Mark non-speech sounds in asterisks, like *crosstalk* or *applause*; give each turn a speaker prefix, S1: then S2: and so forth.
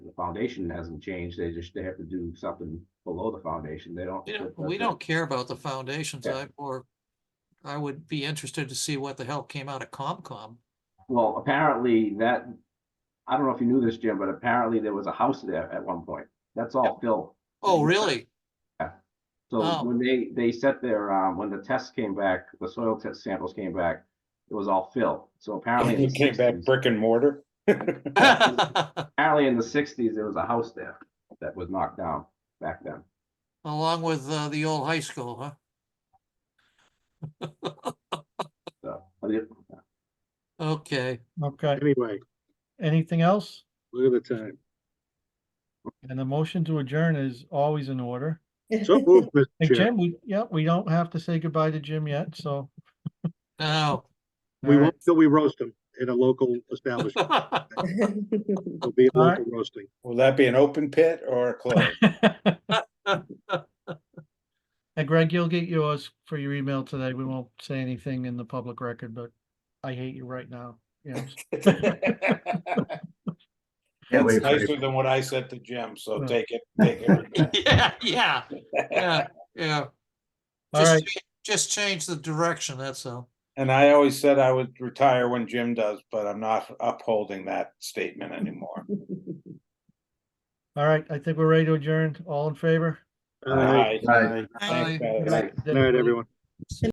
S1: foundation hasn't changed, they just, they have to do something below the foundation, they don't.
S2: We don't,
S1: that's
S2: we
S1: it.
S2: don't care about the foundations,
S1: Yeah.
S2: I, or I would be interested to see what the hell came out of Comcom.
S1: Well, apparently that, I don't know if you knew this, Jim, but apparently there was a house there at one point, that's all fill.
S2: Oh, really?
S1: So
S2: Oh.
S1: when they, they set their, um, when the tests came back, the soil test samples came back, it was all fill. So apparently. in
S3: It
S1: the
S3: came back
S1: 60s
S3: brick and mortar.
S1: Apparently in the sixties, there was a house there that was knocked down back then.
S2: *laughs* Along with, uh, the old high school, huh?
S1: So, I mean,
S2: Okay,
S4: Okay,
S5: Anyway,
S4: anything else?
S5: look at the time.
S4: And the motion to adjourn is always in order.
S5: So moved, Mr.
S4: Hey,
S5: Chair.
S4: Jim, we, yeah, we don't have to say goodbye to Jim yet, so.
S2: *laughs* now.
S5: We
S4: all
S5: won't, till we roast him in a local establishment.
S2: *laughs*
S5: It'll be a
S4: All right.
S5: local roasting.
S3: Will that be an open pit or closed?
S4: right. *laughs* And Greg, you'll get yours for your email today. We won't say anything in the public record, but I hate you right now. Yes.
S3: It's nicer than what I said to Jim, so
S4: Yeah.
S3: take it, take
S2: *laughs*
S3: it.
S2: Yeah, yeah, yeah, yeah.
S4: All
S2: Just
S4: right.
S2: cha- Just change the direction, that's all.
S3: And I always said I would retire when Jim does, but I'm not upholding that statement anymore.
S4: All right, I think we're ready to adjourn. All in favor?
S5: All right.
S3: Aye.
S2: Bye.
S3: Thanks, guys.
S5: Good night, everyone.